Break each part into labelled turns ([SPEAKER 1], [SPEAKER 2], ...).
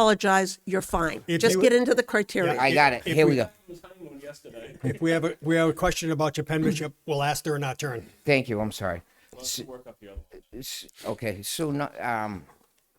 [SPEAKER 1] apologize, you're fine.
[SPEAKER 2] If
[SPEAKER 1] Just
[SPEAKER 2] you-
[SPEAKER 1] get into the criteria.
[SPEAKER 2] Yeah,
[SPEAKER 3] I got it.
[SPEAKER 2] If- if
[SPEAKER 3] Here we
[SPEAKER 2] we-
[SPEAKER 3] go.
[SPEAKER 2] If we have a, we have a question about your penmanship, we'll ask during our turn.
[SPEAKER 3] Thank you. I'm sorry. S- Okay, so not, um,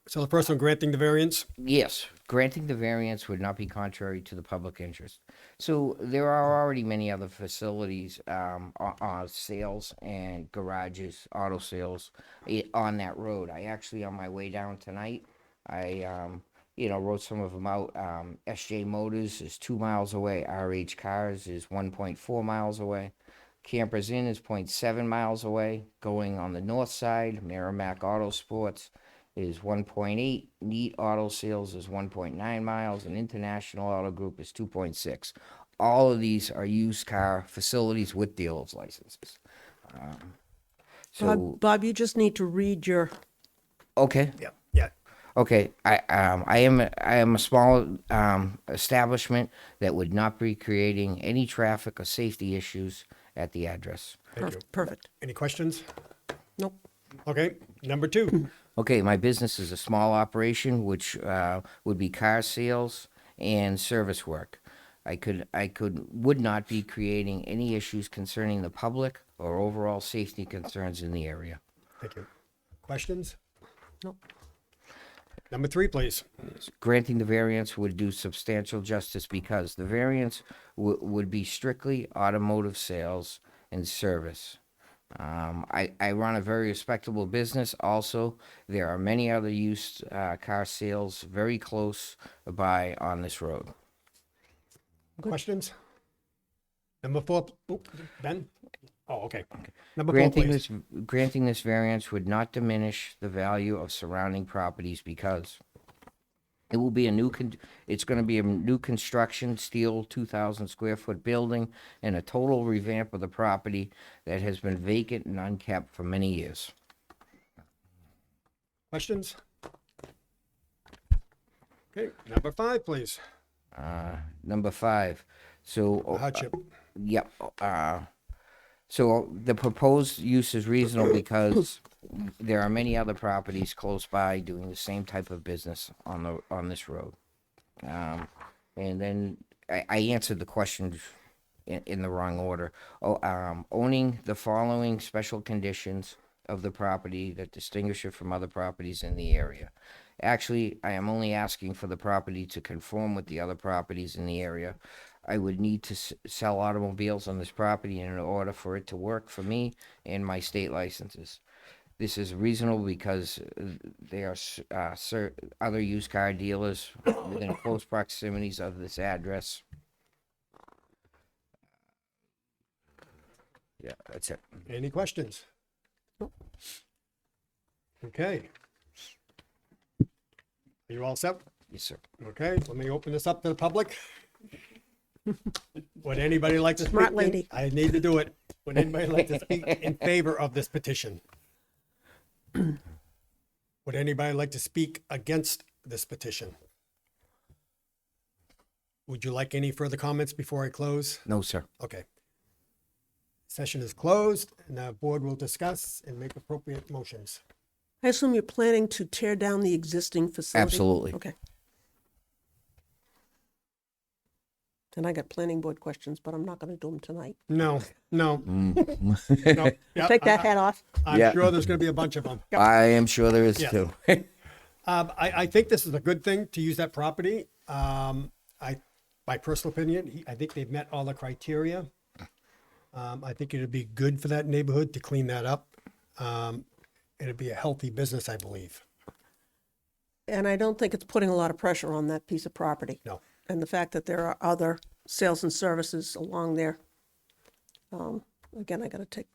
[SPEAKER 2] So the first one, granting the variance,
[SPEAKER 3] yes, granting the variance would not be contrary to the public interest. So there are already many other facilities, um, o- uh, sales and garages, auto sales i- on that road. I actually, on my way down tonight, I, um, you know, wrote some of them out. Um, SJ Motors is two miles away. RH Cars is one point four miles away. Campers Inn is 0.7 miles away. Going on the north side, Merrimack Auto Sports is 1.8. Neat Auto Sales is 1.9 miles, and International Auto Group is 2.6. All of these are used car facilities with dealer's licenses. Um, so
[SPEAKER 1] Bob, Bob, you just need to read your,
[SPEAKER 3] okay,
[SPEAKER 2] yeah, yeah,
[SPEAKER 3] Okay, I um I am a- I am a small um establishment that would not be creating any traffic or safety issues at the address.
[SPEAKER 2] thank you.
[SPEAKER 1] perfect.
[SPEAKER 2] Any questions?
[SPEAKER 1] Nope.
[SPEAKER 2] Okay, number two,
[SPEAKER 3] Okay, my business is a small operation which uh, would be car sales and service work. I could I could would not be creating any issues concerning the public or overall safety concerns in the area.
[SPEAKER 2] thank you. Questions?
[SPEAKER 1] Nope.
[SPEAKER 2] Number three, please.
[SPEAKER 3] granting the variance would do substantial justice because the variance w- would be strictly automotive sales and service. Um, I, I run a very respectable business. Also, there are many other used uh, car sales very close by on this road.
[SPEAKER 2] Questions? Number four, p- oop, Ben? Oh, okay. Number four,
[SPEAKER 3] Granting
[SPEAKER 2] please.
[SPEAKER 3] this, granting this variance would not diminish the value of surrounding properties because it will be a new, con- it's gonna be a new construction, steel, two thousand square foot building and a total revamp of the property that has been vacant and unkept for many years.
[SPEAKER 2] Questions? Okay, number five, please.
[SPEAKER 3] Uh, number five, so. uh,
[SPEAKER 2] Hardship.
[SPEAKER 3] Yep. Uh, so the proposed use is reasonable because there are many other properties close by doing the same type of business on the, on this road. Um, and then I, I answered the questions in, in the wrong order. Oh, um, owning the following special conditions of the property that distinguish it from other properties in the area. Actually, I am only asking for the property to conform with the other properties in the area. I would need to s- sell automobiles on this property in order for it to work for me and my state licenses. This is reasonable because uh, there are s- uh, cer- other used car dealers within close proximities of this address. Yeah, that's it.
[SPEAKER 2] Any questions? Okay. Are you all set?
[SPEAKER 3] Yes, sir.
[SPEAKER 2] Okay, let me open this up to the public. Would anybody like to speak?
[SPEAKER 1] Smart
[SPEAKER 2] in-
[SPEAKER 1] lady.
[SPEAKER 2] I need to do it. Would anybody like to speak in favor of this petition? Would anybody like to speak against this petition? Would you like any further comments before I close?
[SPEAKER 3] No, sir.
[SPEAKER 2] Okay. Session is closed and the board will discuss and make appropriate motions.
[SPEAKER 1] I assume you're planning to tear down the existing facility?
[SPEAKER 3] Absolutely.
[SPEAKER 1] Okay. And I got planning board questions, but I'm not going to do them tonight.
[SPEAKER 2] No, no. no. Yeah,
[SPEAKER 1] Take that
[SPEAKER 2] I-
[SPEAKER 1] hat off.
[SPEAKER 2] I'm
[SPEAKER 3] Yeah.
[SPEAKER 2] sure there's going to be a bunch of them.
[SPEAKER 3] I am sure there is
[SPEAKER 2] Yeah.
[SPEAKER 3] too.
[SPEAKER 2] Um, I, I think this is a good thing to use that property. Um, I, my personal opinion, he- I think they've met all the criteria. Um, I think it'd be good for that neighborhood to clean that up. Um, it'd be a healthy business, I believe.
[SPEAKER 1] And I don't think it's putting a lot of pressure on that piece of property.
[SPEAKER 2] No.
[SPEAKER 1] And the fact that there are other sales and services along there. Um, Again, I got to take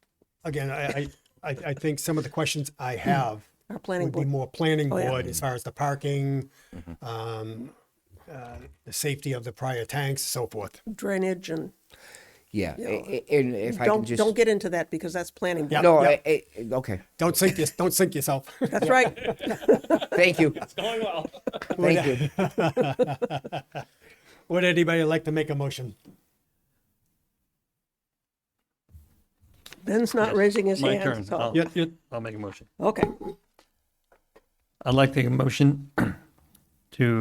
[SPEAKER 2] Again, I, I, I, I think some of the questions I have
[SPEAKER 1] our planning
[SPEAKER 2] would be
[SPEAKER 1] board.
[SPEAKER 2] more planning
[SPEAKER 1] Oh, yeah.
[SPEAKER 2] board as far as the parking, um, uh, the safety of the prior tanks, so forth.
[SPEAKER 1] drainage and
[SPEAKER 3] Yeah, a- a- and if I can
[SPEAKER 1] don't,
[SPEAKER 3] just.
[SPEAKER 1] don't get into that because that's planning. board.
[SPEAKER 3] No,
[SPEAKER 2] Yep.
[SPEAKER 3] I- I- okay,
[SPEAKER 2] Don't sink your, don't sink yourself.
[SPEAKER 1] That's right.
[SPEAKER 3] thank you. It's going well. Thank you.
[SPEAKER 2] Would anybody like to make a motion?
[SPEAKER 1] Ben's not raising his
[SPEAKER 4] My
[SPEAKER 1] hand.
[SPEAKER 4] turn.
[SPEAKER 1] so-
[SPEAKER 4] I'll,
[SPEAKER 2] Yeah, yeah.
[SPEAKER 4] I'll make a motion.
[SPEAKER 1] Okay.
[SPEAKER 4] I'd like to make a motion to